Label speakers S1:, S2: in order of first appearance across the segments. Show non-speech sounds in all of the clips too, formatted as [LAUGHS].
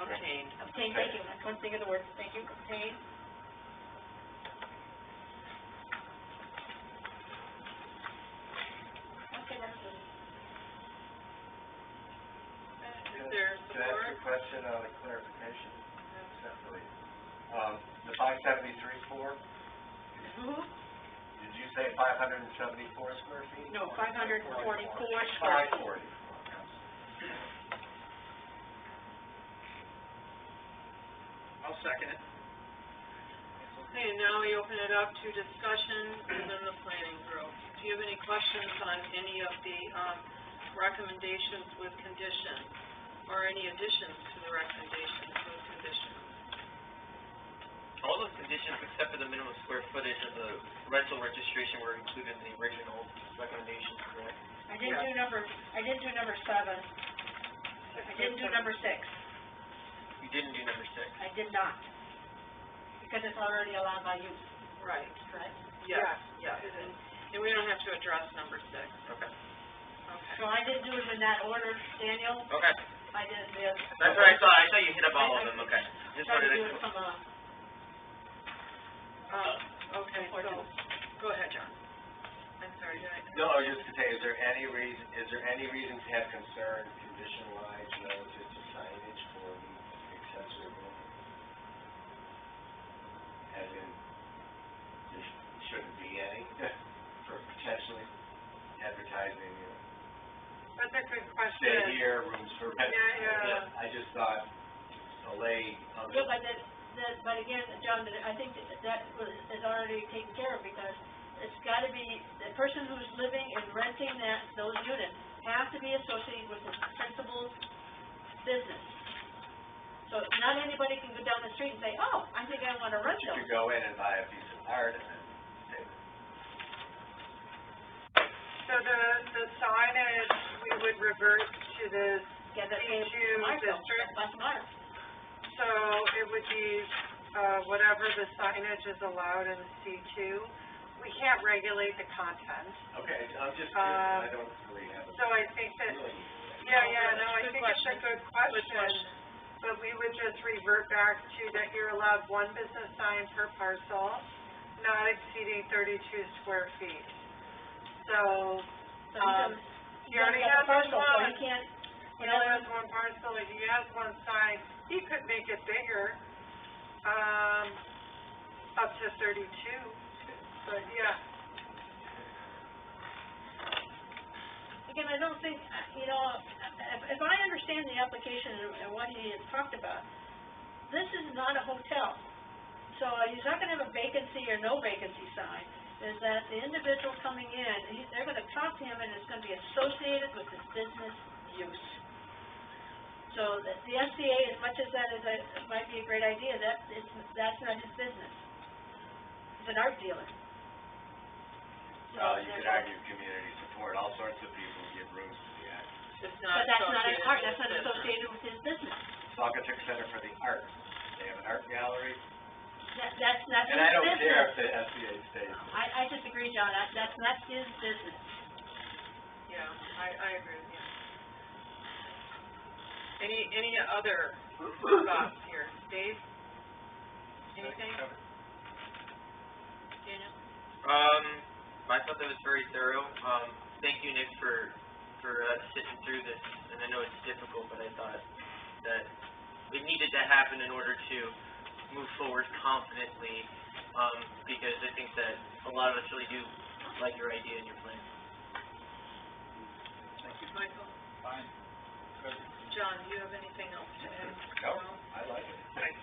S1: Obtained.
S2: Obtain, thank you, one thing in the words, thank you, obtain. Okay, that's good.
S1: Is there support?
S3: Can I ask a question, uh, like clarification, separately? Um, the five seventy-three four,
S1: Mm-hmm.
S3: did you say five hundred and seventy-four square feet?
S1: No, 544
S3: Five
S1: square feet.
S3: forty.
S4: I'll second it.
S1: Okay, now we open it up to discussion within the planning group. Do you have any questions on any of the, um, recommendations with conditions? Or any additions to the recommendations with conditions?
S4: All those conditions except for the minimum square footage of the rental registration were included in the original recommendation, correct?
S2: I didn't do number, I didn't do number seven, I didn't do number six,
S4: You didn't do number six.
S2: I did not, because it's already allowed by use,
S1: Right,
S2: correct?
S1: yes,
S4: Yeah.
S1: yes. And, and we don't have to address number six,
S4: Okay.
S1: okay.
S2: So I didn't do it in that order, Daniel,
S4: Okay,
S2: I did this.
S4: that's what I thought, I thought you hit up all of them, okay. Just
S2: Tried
S4: wanted
S2: to
S4: to,
S2: do it from a, Uh,
S1: Um, okay, so, go ahead, John. I'm sorry, did I?
S3: No, I was just to say, is there any reason, is there any reason to have concern condition-wise relative to signage for the accessory building? As in, there sh- shouldn't be any [LAUGHS] for potentially advertising, you know,
S1: That's a good
S3: stay here, rooms for rent.
S1: Yeah, yeah.
S3: I just thought, um, allay other.
S2: no, but that, that, but again, John, that- I think that that was, is already taken care of, because it's gotta be, the person who's living and renting that, those units have to be associated with the principal's business. So not anybody can go down the street and say, oh, I think I wanna rent
S3: You
S2: those.
S3: could go in and buy a piece of art and then say,
S5: So the, the signage, we would revert to the,
S2: Yeah, that's
S5: Did you
S2: smart though,
S5: district-
S2: that's smart.
S5: so it would be, uh, whatever the signage is allowed in C two. We can't regulate the content,
S3: okay, I'm just,
S5: Uh,
S3: I don't really have a.
S5: so I think that,
S3: really-
S5: yeah, yeah, no, I
S1: Good
S5: think it's a
S1: question.
S5: good
S1: Good
S5: question.
S1: question.
S5: But we would just revert back to that you're allowed one business sign per parcel, not exceeding thirty-two square feet. So,
S2: So you
S5: Um,
S2: can-
S5: you already have
S2: got
S5: this
S2: a parcel, so
S5: one.
S2: you can't,
S5: You know, there's one parcel, if he has one sign, he could make it bigger, um, up to thirty-two, but yeah.
S2: Again, I don't think, uh, you know, if, if I understand the application and- and what he has talked about, this is not a hotel. So he's not gonna have a vacancy or no vacancy sign, is that the individual coming in, he, they're gonna talk to him and it's gonna be associated with his business use. So the, the SCA, as much as that is a, it might be a great idea, that, it's, that's not his business. He's an art dealer. So
S3: Well, you could
S2: therefore-
S3: argue community support, all sorts of people give rooms to the act.
S1: It's
S2: But
S1: not
S2: that's not
S1: associated
S2: an art, that's
S1: with
S2: not
S1: this.
S2: associated with his business.
S3: Saugatuck Center for the Arts, they have an art gallery,
S2: That, that's not his
S3: and I don't care
S2: business.
S3: if the SBA stays.
S2: I, I disagree, John, I- that's not his business.
S1: Yeah, I, I agree with you. Any, any other thoughts here? Dave? Anything? Daniel?
S4: um, I thought that was very thorough. Um, thank you, Nick, for, for, uh, sitting through this, and I know it's difficult, but I thought that it needed to happen in order to move forward confidently, um, because I think that a lot of us really do like your idea and your plan.
S1: Michael? Fine. John, do you have anything else to add?
S3: No, I like it.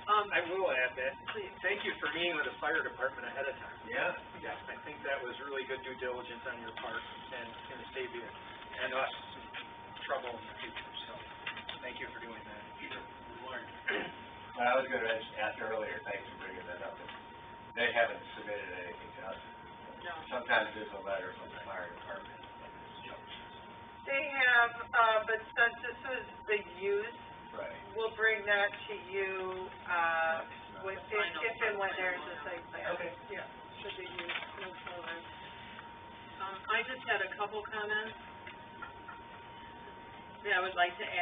S1: Um,
S6: I will add that,
S1: please.
S6: thank you for meeting with the fire department ahead of time.
S3: Yeah,
S6: Yeah, I think that was really good due diligence on your part and going to save you and us some trouble in the future, so thank you for doing that. [CLEARS THROAT]
S3: I was gonna mention, ask earlier, thanks for bringing that up, they haven't submitted anything to us.
S1: No.
S3: Sometimes there's a letter from the fire department, like this
S5: They have, uh, but since this was the use,
S3: Right.
S5: we'll bring that to you, uh, with, if
S1: Final.
S5: if and when there's a site plan.
S3: Okay.
S5: Yeah, should be used, move forward.
S1: Um, I just had a couple comments that I would like to add.